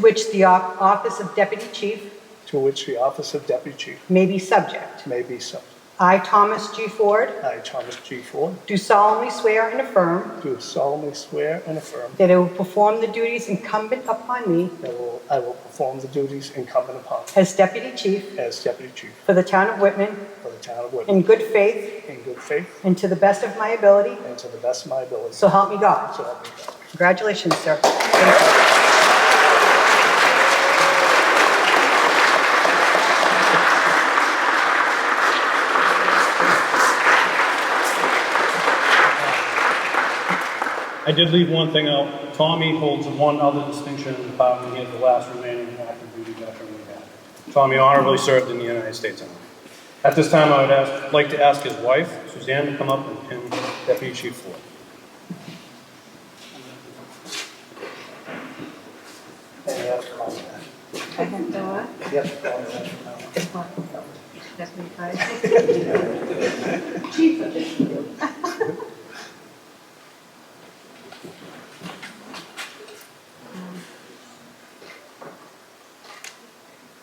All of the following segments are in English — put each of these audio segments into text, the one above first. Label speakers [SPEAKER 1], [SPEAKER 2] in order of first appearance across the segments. [SPEAKER 1] which the Op- Office of Deputy Chief
[SPEAKER 2] to which the office of deputy chief
[SPEAKER 1] may be subject.
[SPEAKER 2] may be subject.
[SPEAKER 1] I, Thomas G. Ford,
[SPEAKER 2] I, Thomas G. Ford,
[SPEAKER 1] do solemnly swear and affirm
[SPEAKER 2] do solemnly swear and affirm
[SPEAKER 1] that I will perform the duties incumbent upon me
[SPEAKER 2] that I will- I will perform the duties incumbent upon me
[SPEAKER 1] as Deputy Chief
[SPEAKER 2] as deputy chief
[SPEAKER 1] for the town of Whitman
[SPEAKER 2] for the town of Woodbury
[SPEAKER 1] in good faith
[SPEAKER 2] in good faith
[SPEAKER 1] and to the best of my ability,
[SPEAKER 2] and to the best of my ability.
[SPEAKER 1] so help me God.
[SPEAKER 2] So help me God.
[SPEAKER 1] Congratulations, sir. Thank you.
[SPEAKER 3] I did leave one thing out. Tommy holds one other distinction in the department. He is the last remaining active duty veteran we have. Tommy honorably served in the United States Army. At this time, I would ask, like to ask his wife, Suzanne, to come up and pin Deputy Chief Ford.
[SPEAKER 2] And that's all that.
[SPEAKER 4] I have no one.
[SPEAKER 2] Yep, all that from now on.
[SPEAKER 4] That's me, guys.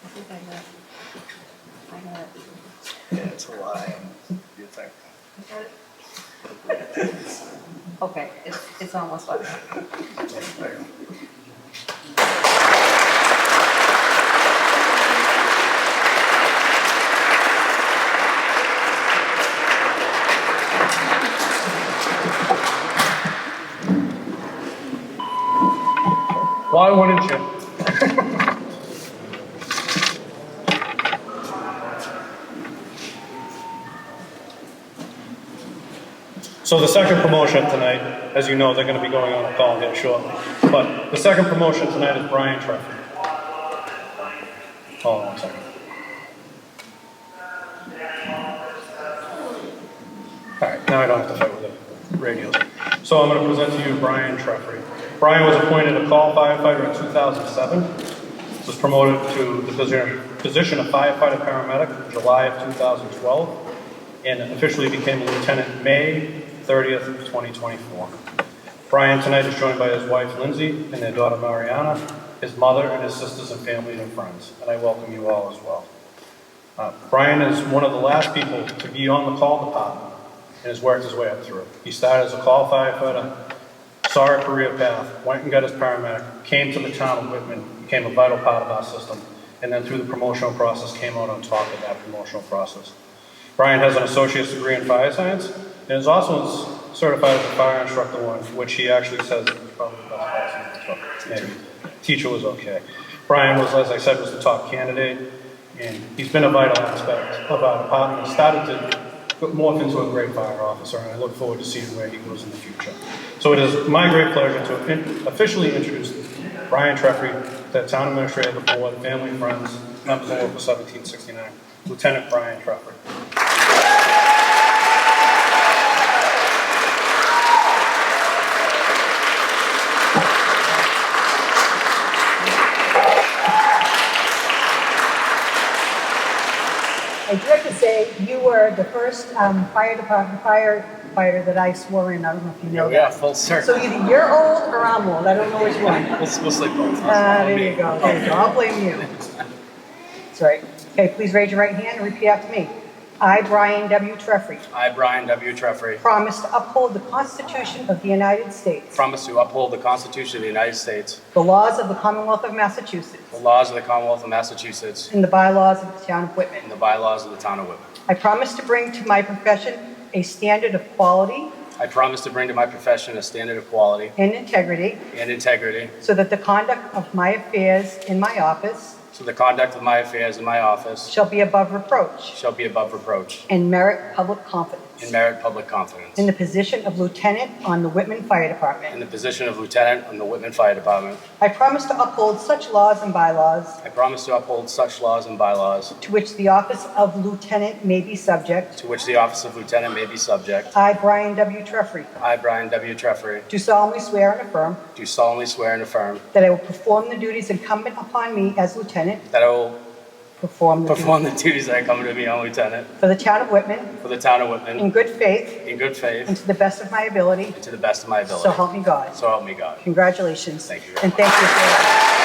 [SPEAKER 4] I think I got, I got it.
[SPEAKER 2] Yeah, it's a lie. You think?
[SPEAKER 4] You got it? Okay, it's, it's almost like.
[SPEAKER 3] Why wouldn't you? So the second promotion tonight, as you know, they're gonna be going on a call here shortly. But the second promotion tonight is Brian Oh, Treffy. Hold on one second. Alright, now I don't have to fight with the radios. So I'm gonna present to you Brian Treffry. Brian was appointed a call firefighter in 2007. Was promoted to the posi- position of firefighter paramedic in July of 2012. And officially became a lieutenant May 30th, of 2024. Brian tonight is joined by his wife Lindsay and their daughter Mariana, his mother and his sisters and family and friends. And I welcome you all as well. Uh, Brian is one of the last people to be on the call department and has worked his way up through. He started as a call firefighter, saw a career path, went and got his paramedic, came to the town of Whitman, became a vital part of our system, and then through the promotional process came out on top of that promotional process. Brian has an associate's degree in fire science and is also certified as a fire instructor one, which he actually says is probably the best fire instructor. Maybe. Teacher was okay. Brian was, as I said, was the top candidate, and he's been a vital aspect of our department. He Started to morph into a great fire officer, and I look forward to seeing where he goes in the future. So it is my great pleasure to in- officially introduce Brian Treffry, the town administrator of the board, family, friends, members of Local 1769, Lieutenant Brian Treffry.
[SPEAKER 1] I do have to say, you were the first um, fire department firefighter that I swore in. I don't know if you know
[SPEAKER 5] Yeah,
[SPEAKER 1] that.
[SPEAKER 5] full
[SPEAKER 1] So
[SPEAKER 5] circle.
[SPEAKER 1] either you're old or I'm old. I don't know which one.
[SPEAKER 5] We'll, we'll sleep both.
[SPEAKER 1] Ah, there you go. There you go. I'll blame you. That's right. Okay, please raise your right hand and repeat after me. I, Brian W. Treffry,
[SPEAKER 5] I, Brian W. Treffery,
[SPEAKER 1] promise to uphold the Constitution of the United States,
[SPEAKER 5] promise to uphold the Constitution of the United States,
[SPEAKER 1] the laws of the Commonwealth of
[SPEAKER 5] the
[SPEAKER 1] Massachusetts,
[SPEAKER 5] laws of the Commonwealth of Massachusetts,
[SPEAKER 1] and the bylaws of the town of Whitman.
[SPEAKER 5] and the bylaws of the town of Whitman.
[SPEAKER 1] I promise to bring to my profession a standard of quality
[SPEAKER 5] I promise to bring to my profession a standard of quality
[SPEAKER 1] and integrity
[SPEAKER 5] and integrity
[SPEAKER 1] so that the conduct of my affairs in my office
[SPEAKER 5] so the conduct of my affairs in my office
[SPEAKER 1] shall be above reproach
[SPEAKER 5] shall be above reproach
[SPEAKER 1] and merit public
[SPEAKER 5] and
[SPEAKER 1] confidence
[SPEAKER 5] merit public confidence.
[SPEAKER 1] in the position of lieutenant on the Whitman Fire
[SPEAKER 5] In
[SPEAKER 1] Department.
[SPEAKER 5] the position of lieutenant on the Whitman Fire Department,
[SPEAKER 1] I promise to uphold such laws and bylaws
[SPEAKER 5] I promise to uphold such laws and bylaws
[SPEAKER 1] to which the office of lieutenant may be subject.
[SPEAKER 5] to which the office of lieutenant may be subject.
[SPEAKER 1] I, Brian W. Treffry,
[SPEAKER 5] I, Brian W. Treffery,
[SPEAKER 1] do solemnly swear and affirm
[SPEAKER 5] do solemnly swear and affirm
[SPEAKER 1] that I will perform the duties incumbent upon me as lieutenant,
[SPEAKER 5] that I will
[SPEAKER 1] perform the duties
[SPEAKER 5] Perform the duties that come to me on lieutenant
[SPEAKER 1] for the town of Whitman
[SPEAKER 5] for the town of
[SPEAKER 1] in
[SPEAKER 5] Whitman
[SPEAKER 1] good faith
[SPEAKER 5] in good
[SPEAKER 1] and
[SPEAKER 5] faith
[SPEAKER 1] to the best of my ability.
[SPEAKER 5] and to the best of my
[SPEAKER 1] So
[SPEAKER 5] ability.
[SPEAKER 1] help me God.
[SPEAKER 5] So help me God.
[SPEAKER 1] Congratulations.
[SPEAKER 5] Thank you very
[SPEAKER 1] And thank you. for that.